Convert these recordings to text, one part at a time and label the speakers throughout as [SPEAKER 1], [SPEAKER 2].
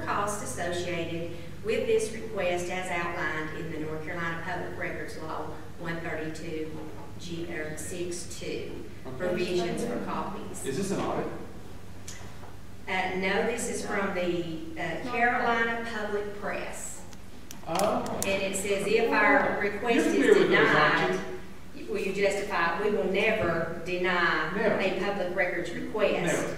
[SPEAKER 1] costs associated with this request as outlined in the North Carolina Public Records Law 132 G, or 62, provisions for copies.
[SPEAKER 2] Is this an audit?
[SPEAKER 1] Uh, no, this is from the uh, Carolina Public Press.
[SPEAKER 2] Oh.
[SPEAKER 1] And it says if our request
[SPEAKER 2] You're
[SPEAKER 1] is
[SPEAKER 2] familiar with those,
[SPEAKER 1] denied,
[SPEAKER 2] aren't
[SPEAKER 1] will you justify, we will never deny
[SPEAKER 2] Never.
[SPEAKER 1] a public records request.
[SPEAKER 2] Never.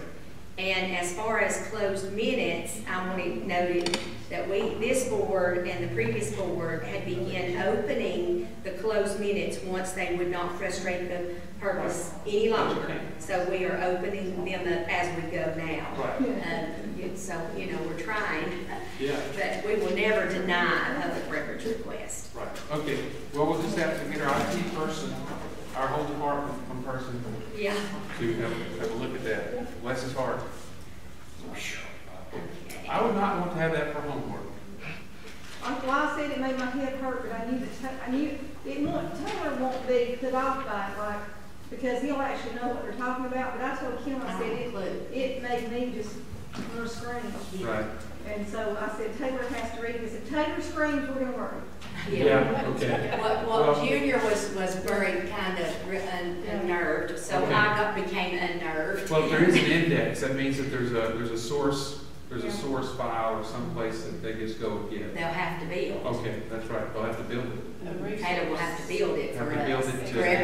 [SPEAKER 1] And as far as closed minutes, I want it noted that we, this board and the previous board had begun opening the closed minutes once they would not frustrate the purpose any longer. So we are opening them up as we go now.
[SPEAKER 2] Right,
[SPEAKER 1] Um, and so, you know, we're trying,
[SPEAKER 2] yeah,
[SPEAKER 1] but we will never deny a public records request.
[SPEAKER 2] right, okay. Well, we'll just have to get our IT person, our whole department, one person
[SPEAKER 1] Yeah.
[SPEAKER 2] to have, have a look at that. Bless his heart. I would not want to have that for homework.
[SPEAKER 3] Uncle, I said it made my head hurt, but I knew that, Ta- I knew, it won't, Taylor won't be put off by it, like, because he'll actually know what they're talking about, but I told Kim, I said, it, it made me just, her scream.
[SPEAKER 2] Right.
[SPEAKER 3] And so I said, Taylor has to read this, if Taylor screams, we're gonna worry.
[SPEAKER 2] Yeah, okay.
[SPEAKER 1] Well,
[SPEAKER 2] Well-
[SPEAKER 1] well, Junior was, was very kind of re- un-
[SPEAKER 3] Yeah.
[SPEAKER 1] unnerved, so I
[SPEAKER 2] Okay.
[SPEAKER 1] got, became unnerved.
[SPEAKER 2] Well, if there is an index, that means that there's a, there's a source, there's a
[SPEAKER 3] Yeah.
[SPEAKER 2] source file or someplace that they just go
[SPEAKER 1] They'll
[SPEAKER 2] get.
[SPEAKER 1] have to build.
[SPEAKER 2] Okay, that's right, they'll have to build it.
[SPEAKER 1] Taylor will have to build it
[SPEAKER 2] Have
[SPEAKER 1] for
[SPEAKER 2] to build
[SPEAKER 1] us,
[SPEAKER 2] it
[SPEAKER 1] for
[SPEAKER 2] to-